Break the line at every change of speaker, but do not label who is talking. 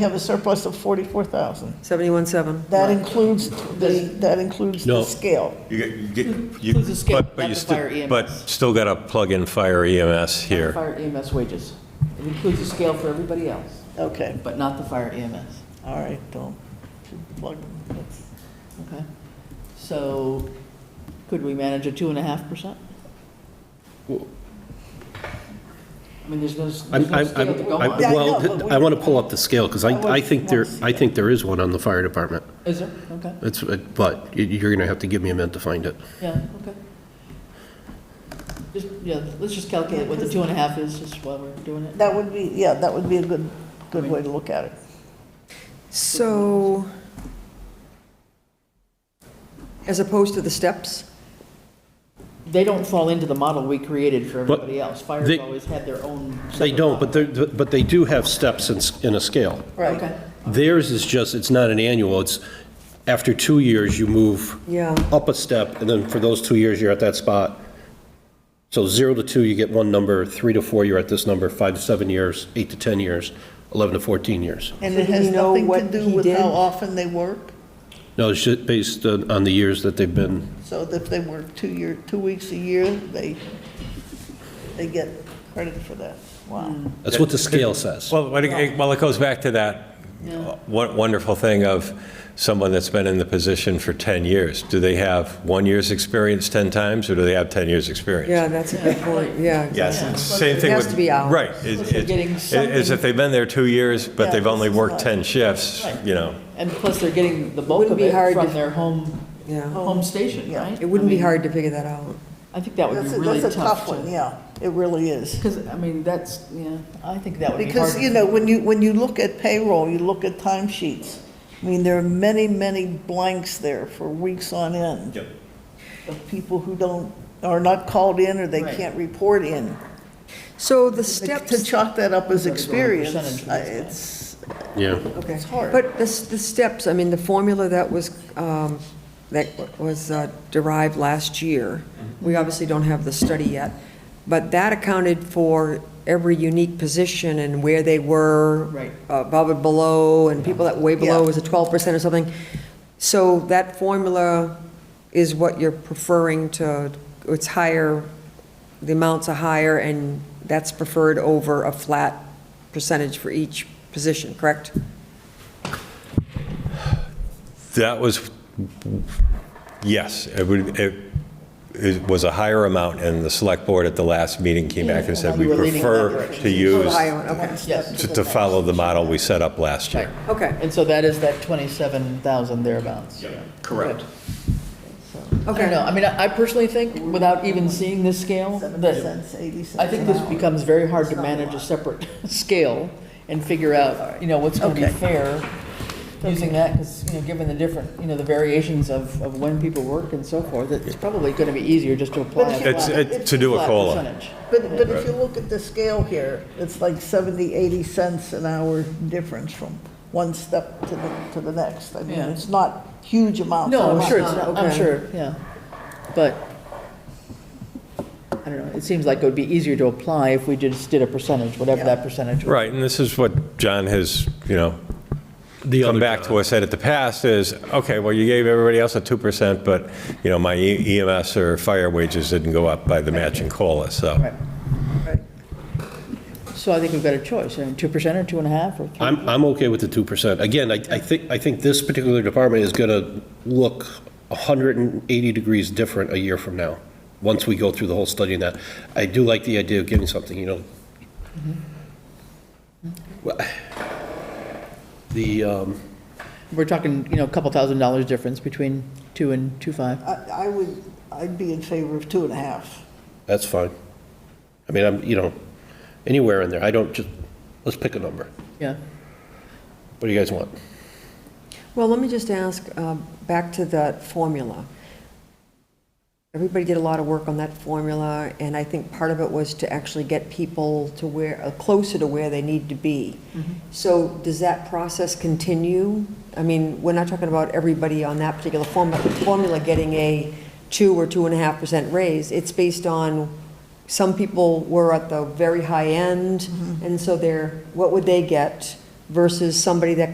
We have a surplus of 44,000.
71.7.
That includes the, that includes the
No.
scale.
You get- you get, you,
Includes the skip,
but, but you
not the fire E
still,
EMS.
but still got to plug in fire EMS here.
Fire EMS wages. It includes the scale for everybody else,
Okay,
but not the fire E EMS,
all right, don't plug, that's-
okay? So could we manage a two and a half percent?
Well-
I mean, there's no, there's
I'm,
no
I'm,
scale to
I'm-
go
I'm-
on.
Yeah, I know,
well,
but
th-
we-
I want to pull up the scale, because I,
I
I think there,
want to see
I think there is one on the fire department.
Is there? Okay,
It's, it- but you- you're going to have to give me a minute to find it.
yeah, okay. Just, yeah, let's just calculate what the two and a half is, just while we're doing it.
that would be, yeah, that would be a good, good way to look at it.
So, as opposed to the steps?
They don't fall into the model we created for
But
everybody else. Fire's
they-
always had their own.
They
separate
don't,
model.
but they, but they do have steps in, s- in a scale.
Okay.
Theirs is just, it's not an annual, it's, after two years, you move
Yeah.
up a step, and then for those two years, you're at that spot. So zero to two, you get one number, three to four, you're at this number, five to seven years, eight to 10 years, 11 to 14 years.
And
So
it
do
has
we know
nothing to
what
do
he
with
did?
how often they work?
No, it's just based on on the years that they've been
So if they work two year, two weeks a year, they, they get credit for that. Wow.
Hmm.
That's what the scale says.
Well, but it- well, it goes back to that won- wonderful thing of someone that's been in the position for 10 years. Do they have one year's experience 10 times, or do they have 10 years' experience?
Yeah, that's a good point, yeah.
Yes,
exactly.
it's the same thing
It
with.
has to be hours.
Right.
So they're
it-
getting
it- It's
something.
if they've been there two years, but
Yeah,
they've
this
only
is
worked
not-
10 shifts,
Right.
you know.
And plus, they're getting the bulk
Wouldn't
of
be
it
hard
from
to-
their home,
Yeah.
home station,
Yeah.
right?
It wouldn't
I
be
mean,
hard to figure that out.
I think that would be
That's, a-
really
that's a
tough
tough one, yeah, it really is.
Because, I mean, that's, yeah, I think that would be hard.
Because, you know, when you, when you look at payroll, you look at timesheets. I mean, there are many, many blanks there for weeks on end.
Yep.
Of people who don't, are not called in or they
Right.
can't report in.
So the
To
steps,
chalk that up as
We've got to go on
experience,
percentage
I-
with this guy.
it's,
Yeah.
okay.
it's hard.
But the, s- the steps, I mean, the formula that was, um, that was uh, derived last year,
Mm-hmm.
we obviously don't have the study yet, but that accounted for every unique position and where they were.
Right.
Above and below, and people that way below
Yeah.
was a twelve percent or something. So that formula is what you're preferring to, it's higher, the amounts are higher, and that's preferred over a flat percentage for each position, correct?
That was, yes, it would, it, it was a higher amount, and the select board at the last meeting came back and said, we
You were leaning that
prefer
direction."
to use,
Ohio, okay,
Yes.
to to follow the model we set up last year.
okay,
And so that is that 27,000 thereabouts.
Correct.
I don't know,
okay.
I mean, I I personally think, without even seeing this scale,
Seven
that
cents, eighty cents
I think
an
this
hour.
becomes very hard to manage a separate scale and figure out, you know, what's going to
Okay.
be fair using that, because, you know, given the different, you know, the variations of, of when people work and so forth, it's probably going to be easier just to apply.
But
a
if you-
It's,
flat-
it- to do a
flat
COLA.
percentage.
But, but if you look at the scale here, it's like 70, 80 cents an hour difference from one step to the, to the next. I mean,
Yeah.
it's not huge amounts.
No,
of
I'm sure
money.
it's not, I'm
Okay.
sure, yeah. But, I don't know, it seems like it would be easier to apply if we just did a percentage, whatever that percentage was.
Right, and this is what John has, you know, come back to us at at the past is, okay, well, you gave everybody else a 2%, but, you know, my E- EMS or fire wages didn't go up by the matching COLA, so.
Right. So I think we've got a choice, I mean, 2% or 2.5 or 3?
I'm, I'm okay with the 2%. Again, I, I think, I think this particular department is going to look 180 degrees different a year from now, once we go through the whole study and that. I do like the idea of giving something, you know. Well, The, um,
We're talking, you know, a couple thousand dollars difference between 2 and 2.5.
I, I would, I'd be in favor of two and a half.
that's fine. I mean, I'm, you know, anywhere in there, I don't just, let's pick a number.
Yeah,
What do you guys want?
Well, let me just ask, um, back to that formula. Everybody did a lot of work on that formula, and I think part of it was to actually get people to where, uh, closer to where they need to be. So does that process continue? I mean, we're not talking about everybody on that particular formula, formula getting a two or two and a half percent raise. It's based on, some people were at the very high end, and so they're, what would they get? versus somebody that